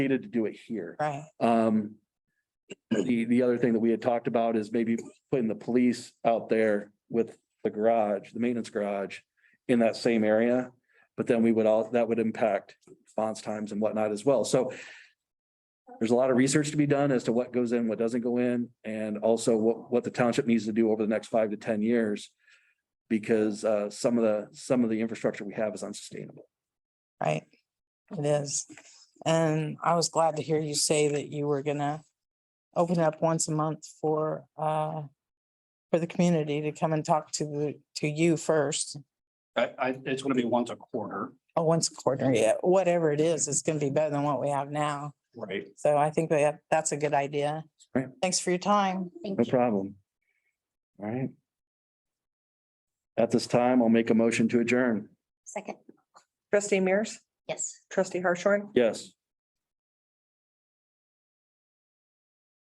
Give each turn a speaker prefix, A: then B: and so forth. A: needed to do it here.
B: Right.
A: Um, the, the other thing that we had talked about is maybe putting the police out there with the garage, the maintenance garage in that same area. But then we would all, that would impact response times and whatnot as well. So there's a lot of research to be done as to what goes in, what doesn't go in, and also what, what the township needs to do over the next five to ten years. Because, uh, some of the, some of the infrastructure we have is unsustainable.
B: Right. It is. And I was glad to hear you say that you were gonna open up once a month for, uh, for the community to come and talk to the, to you first.
C: I, I, it's gonna be once a quarter.
B: Oh, once a quarter, yeah, whatever it is, it's gonna be better than what we have now.
C: Right.
B: So I think that that's a good idea.
A: Right.
B: Thanks for your time.
A: No problem. All right. At this time, I'll make a motion to adjourn.
D: Second,
E: Trustee Mears,
D: yes.
E: trustee Hartshorn,
A: Yes.